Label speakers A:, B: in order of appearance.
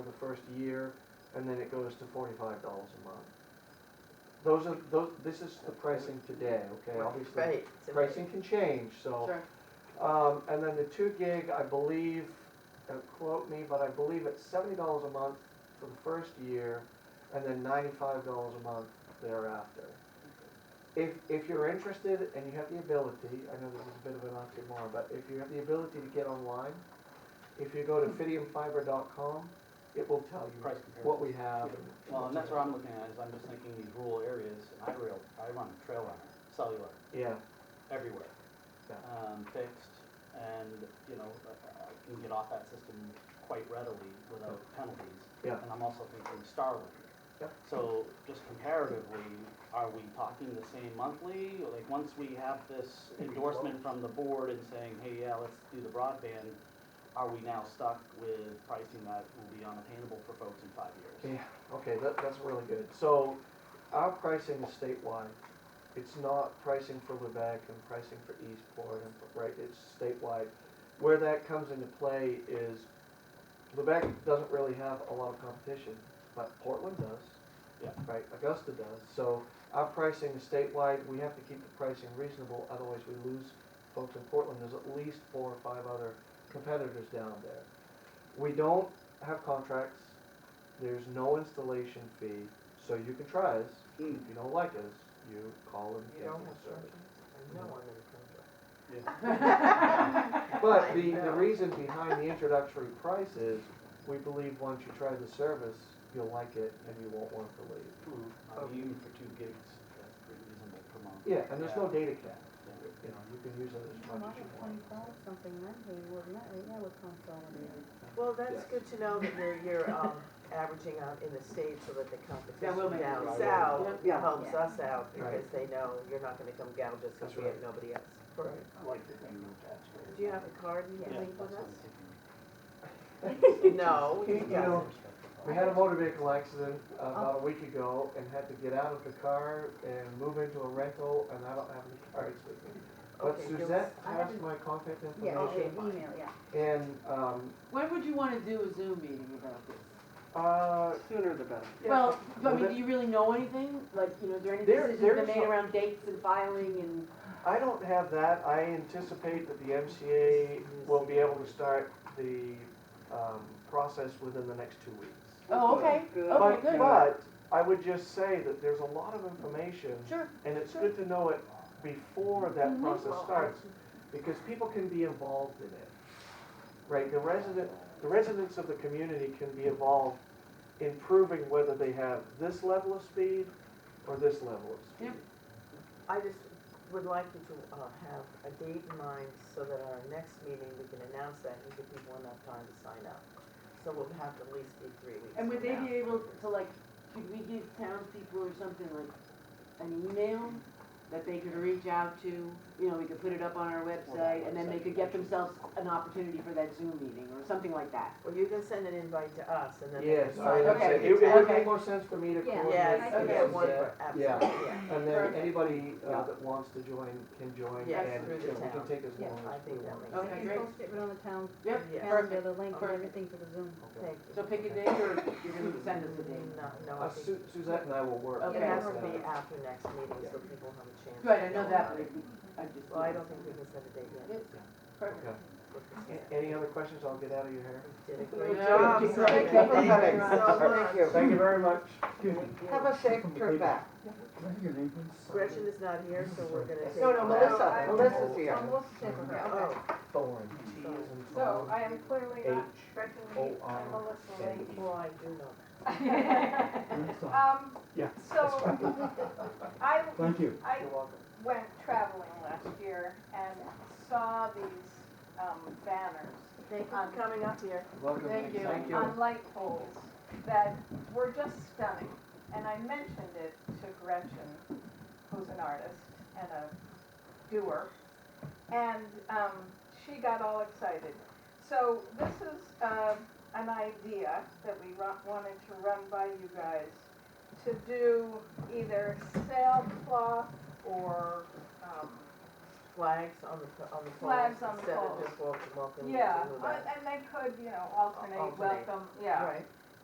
A: first year, and then it goes to forty-five dollars a month. Those are, those, this is the pricing today, okay? Obviously,
B: Right. so-
A: pricing can change, so.
B: Sure.
A: Um, and then the two gig, I believe, don't quote me, but I believe it's seventy dollars a month for the first year, and then ninety-five dollars a month thereafter. If, if you're interested and you have the ability, I know this is a bit of an oxymoron, but if you have the ability to get online, if you go to fidiumfiber.com, it will tell you
C: Price comparison.
A: what we have. and-
C: Well, and that's what I'm looking at, is I'm just thinking these rural areas, and I rail, I run trail runner, cellular,
A: Yeah,
C: everywhere.
A: Yeah.
C: Um, fixed, and, you know, I I can get off that system quite readily without penalties.
A: Yeah.
C: And I'm also thinking Starlink.
A: Yeah.
C: So just comparatively, are we talking the same monthly? Like, once we have this endorsement from the board and saying, hey, yeah, let's do the broadband, are we now stuck with pricing that will be unattainable for folks in five years?
A: yeah, okay, that, that's really good. So our pricing is statewide. It's not pricing for Lubec and pricing for Eastport and, for- right, it's statewide. Where that comes into play is Lubec doesn't really have a lot of competition, but Portland does.
C: Yeah.
A: Right, Augusta does. So our pricing is statewide, we have to keep the pricing reasonable, otherwise we lose folks in Portland. There's at least four or five other competitors down there. We don't have contracts, there's no installation fee, so you can try us.
C: Hmm.
A: If you don't like us, you call and
D: You
A: cancel
D: don't have
A: the service.
D: contract? I know I'm in a contract.
A: But the,
D: I
A: the
D: know.
A: reason behind the introductory price is, we believe once you try the service, you'll like it and you won't want to leave.
C: I mean, even for two gigs, that's pretty reasonable per month.
A: Yeah, and there's no data cap, you
C: Yeah.
A: know, you can use it as
E: Well,
A: much as you want.
E: twenty-five something, that they were, that, that would consolidate.
B: Well, that's
A: Yes.
B: good to know that you're, you're, um, averaging out in the state so that the
D: That
B: competition
D: will make it
B: down
C: right.
B: south
D: Yeah.
B: helps
E: Yeah.
B: us out because
A: Right.
B: they know you're not gonna come gouge us
A: That's
B: because we
A: right.
B: have nobody else.
A: Right.
C: I like the thing with attached.
B: Do you have a card you
C: Yeah,
B: can leave with
C: that's what I'm
B: us?
C: thinking.
B: No,
A: You
B: you
A: know,
B: don't.
A: We had a motor vehicle accident about a week ago and had to get out of the car and move into a rental and I don't have any cards with me. But
B: Okay, give
A: Suzette
E: us- I
A: passed
E: haven't-
A: my contact
E: Yeah,
B: Okay,
A: information
E: an
B: fine.
E: email, yeah.
A: and, um,
F: When would you wanna do a Zoom meeting about this?
A: uh,
D: Sooner the better.
A: Yeah.
F: Well, I
A: Well,
F: mean,
A: that-
F: do you really know anything? Like, you know, is there any
A: There-
F: decisions
A: there's
F: been made
A: some-
F: around dates and filing and?
A: I don't have that. I anticipate that the MCA will be able to start the um, process within the next two weeks.
F: Oh, okay,
D: Good.
A: But,
F: okay, good.
A: but I would just say that there's a lot of information,
F: Sure,
A: and it's
F: sure.
A: good to know it before that
F: Mhm.
A: process starts, because people can be involved in it. Right, the resident, the residents of the community can be involved in proving whether they have this level of speed or this level of speed.
F: Yep.
B: I just would like you to, uh, have a date in mind so that our next meeting, we can announce that and give people enough time to sign up. So we'll have to at least be three weeks
F: And would
B: from
F: they
B: now.
F: be able to like, could we give townspeople or something like an email that they could reach out to? You know, we could put it up on our website and then they could get themselves an opportunity for that Zoom meeting or something like that.
B: Well, you can send an invite to us and then. they can
A: Yes, I
B: sign
A: would
B: up.
A: say,
F: Okay.
A: it it would
F: Okay.
A: make more sense for me to
E: Yeah.
A: coordinate.
B: Yes,
E: I
A: with
E: think
B: okay,
E: that's
B: one,
A: Suzette.
B: for-
A: Yeah.
B: absolutely, yeah.
A: And then
F: Perfect.
A: anybody uh,
B: Yeah.
A: that wants to join can join, and you
B: Yes, through the
A: know, we can
B: town.
A: take as
E: Yeah,
A: long
B: I
A: as we
B: think that
A: want.
B: makes
F: Okay,
E: You
F: great.
E: post it on the town
F: Yep,
B: Yeah.
E: calendar,
F: perfect.
E: the link and
B: Okay.
E: everything for the Zoom.
A: Okay.
B: Thank you. Mm,
F: So pick a date or you're gonna send us a date?
B: No, no, I
A: Uh,
B: think
A: Su- Suzette and I will work. uh,
F: Okay.
B: it
A: on
B: has to
A: that.
B: be after next meeting so people have a chance.
F: Right,
B: to
F: I know that,
B: about
F: but
B: it.
F: I just.
B: Well, I don't think we can set a date yet.
F: Yep, Perfect.
A: Okay.
B: Look, this is-
A: A- Any other questions? I'll get out of your hair.
B: Did a
F: Great
B: great job.
F: job. Thank you for coming.
B: Thank you so much.
A: Thank you very much.
D: Have a safe trip back.
B: Gretchen is not here, so we're gonna take.
D: No, no, Melissa,
A: I-
D: Melissa's here.
B: Oh,
A: Thorn.
G: So I am clearly not
A: H
G: stretching
A: O
G: the,
A: R
G: I'm Melissa
A: N
G: Lee.
B: well, I do know.
G: Um,
A: Yeah.
G: so I,
H: Thank you.
G: I
A: You're welcome.
G: went traveling last year and saw these, um, banners
B: Thank you for coming up here.
A: Welcome.
F: Thank you.
A: Thank you.
G: on light poles that were just stunning. And I mentioned it to Gretchen, who's an artist and a doer, and um, she got all excited. So this is uh, an idea that we ru- wanted to run by you guys to do either sailcloth or, um,
B: Flags on the, po- on the poles.
G: Flags on the
B: Instead of
G: poles.
B: just welcome, welcome.
G: yeah,
B: to the-
G: uh, and they could, you know, alternate
B: Alternate.
G: welcome, yeah.
B: Right.